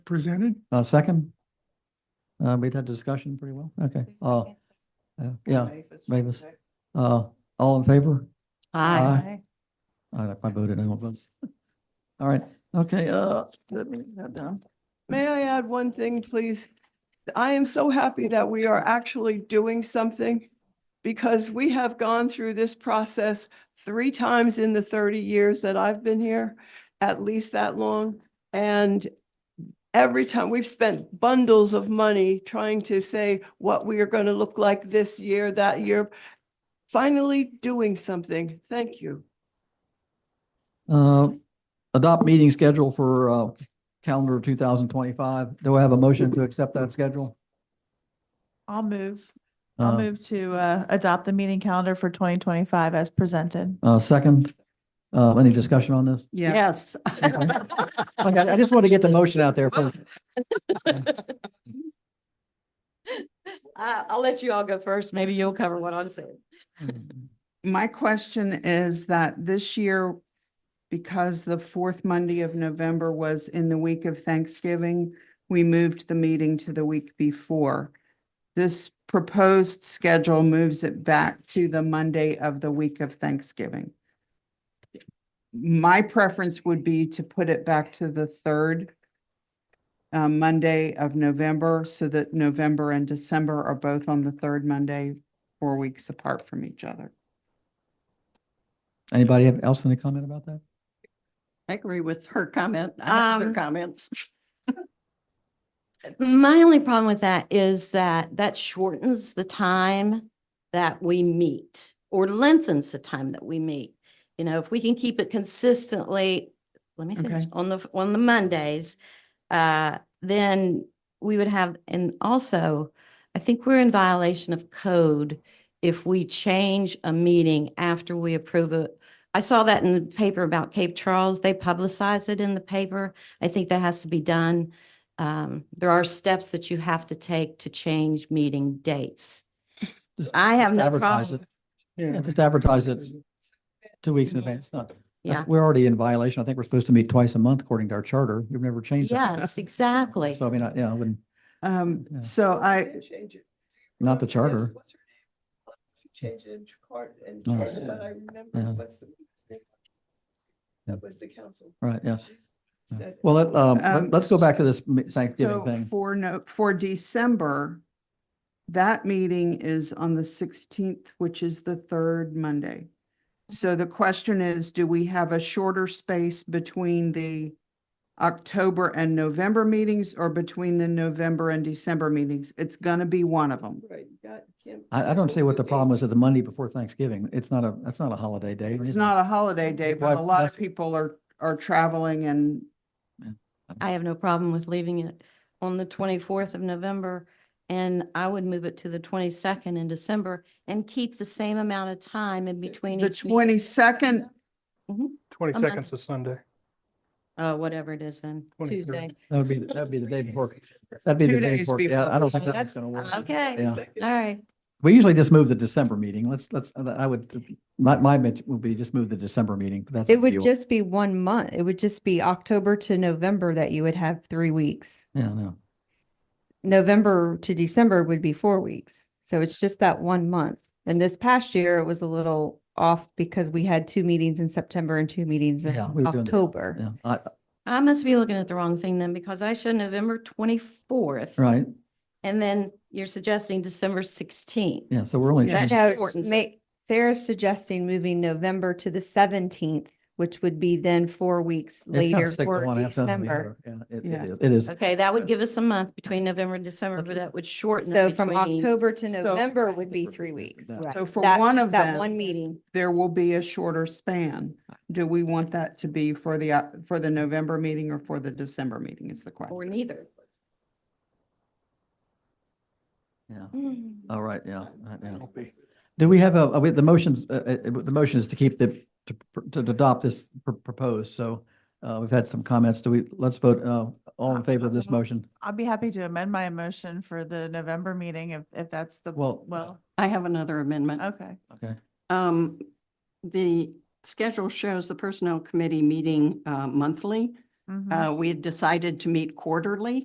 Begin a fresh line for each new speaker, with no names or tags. presented.
Uh, second? Uh, we've had the discussion pretty well. Okay. Uh, uh, yeah, Mavis. Uh, all in favor? Aye. I, I voted no, but. All right. Okay, uh, let me get that down.
May I add one thing, please? I am so happy that we are actually doing something because we have gone through this process three times in the 30 years that I've been here, at least that long. And every time, we've spent bundles of money trying to say what we are going to look like this year, that year. Finally doing something. Thank you.
Uh, adopt meeting schedule for, uh, calendar two thousand twenty-five. Do I have a motion to accept that schedule?
I'll move. I'll
Uh,
move to uh, adopt the meeting calendar for 2025 as presented.
Uh, second, uh, any discussion on this?
Yes.
Like, I I just want to get the motion out there first.
I, I'll let you all go first. Maybe you'll cover what I'm saying.
My question is that this year, because the fourth Monday of November was in the week of Thanksgiving, we moved the meeting to the week before. This proposed schedule moves it back to the Monday of the week of Thanksgiving. My preference would be to put it back to the third uh, Monday of November so that November and December are both on the third Monday, four weeks apart from each other.
Anybody have- else any comment about that?
I agree with her comment. I have
Um,
other comments.
My only problem with that is that that shortens the time that we meet or lengthens the time that we meet. You know, if we can keep it consistently, let me finish,
Okay.
on the, on the Mondays, uh, then we would have, and also, I think we're in violation of code if we change a meeting after we approve it. I saw that in the paper about Cape Charles. They publicized it in the paper. I think that has to be done um, there are steps that you have to take to change meeting dates.
Just-
I have
just
no
advertise
problem.
it. Yeah, just advertise it two weeks in advance. Not-
Yeah,
We're already in violation. I think we're supposed to meet twice a month according to our charter. We've never changed that.
yes, exactly.
So I mean, I- yeah, I wouldn't,
Um,
Yeah.
so I,
did change it.
Not the
Yes,
charter.
what's her name? She Changed it in chart and
No.
charter, but I
Yeah.
remember what's the.
Yeah.
That was the council.
right, yeah.
She
Yeah.
said-
Well, let, um,
Um,
let- let's go back to this m- Thanksgiving
so
thing.
for no, for December, that meeting is on the sixteenth, which is the third Monday. So the question is, do we have a shorter space between the October and November meetings or between the November and December meetings? It's gonna be one of them.
Right, you got- can't-
I, I don't see
move
what the problem is
dates.
at the Monday before Thanksgiving. It's not a, that's not a holiday day. or
It's
anything.
not a holiday day,
Why-
but a lot
that's-
of people are, are traveling and
I have no problem with leaving it on the twenty-fourth of November. And I would move it to the twenty-second in December and keep the same amount of time in between.
the
each meeting.
twenty-second,
Twenty
I'm not-
seconds is Sunday.
Uh, whatever it is then,
23rd.
Tuesday.
That would be, that'd be the day before, that'd be
Two
the day
days
before. Yeah, I
before.
don't think this is
That's-
going to work.
Okay,
Yeah.
all right.
We usually just move the December meeting. Let's, let's, uh, I would, my, my bit would be just move the December meeting, but that's.
It
up to you.
would just be one month. It would just be October to November that you would have three weeks.
Yeah, no.
November to December would be four weeks. So it's just that one month. And this past year, it was a little off because we had two meetings in September and two meetings in
Yeah, we were doing that.
October.
Yeah, I,
I must be looking at the wrong thing then because I show November twenty-fourth.
right.
And then you're suggesting December sixteenth.
Yeah, so we're only.
Yeah.
changing-
That
Now,
shortens it.
ma- Sarah's suggesting moving November to the seventeenth, which would be then four weeks
it's kinda
later
sick to
for
wanna have something to
December. Uh,
the other. Yeah, it-
Yeah.
it is. It is.
Okay, that would give us a month between November and December, but that would shorten
So
it
from
between.
October to
So-
November would be three weeks.
so for
That-
one of them.
That one meeting.
there will be a shorter span. Do we want that to be for the, uh, for the November meeting or for the December meeting is the
Or
question?
neither.
Yeah.
Mm.
All right, yeah, right, yeah.
Won't be.
Do we have a, uh, we- the motions, uh, uh, uh, the motion is to keep the, to pr- to adopt this pr- proposed, so uh, we've had some comments. Do we, let's vote, uh, all in favor of
Uh,
this motion?
I'll be happy to amend my motion for the November meeting if, if that's the,
Well, uh,
well,
I have another amendment.
okay.
Okay,
Um, the schedule shows
Mm-hmm.
the Personnel Committee meeting uh, monthly.
Mhm.
Uh, we had decided to meet quarterly.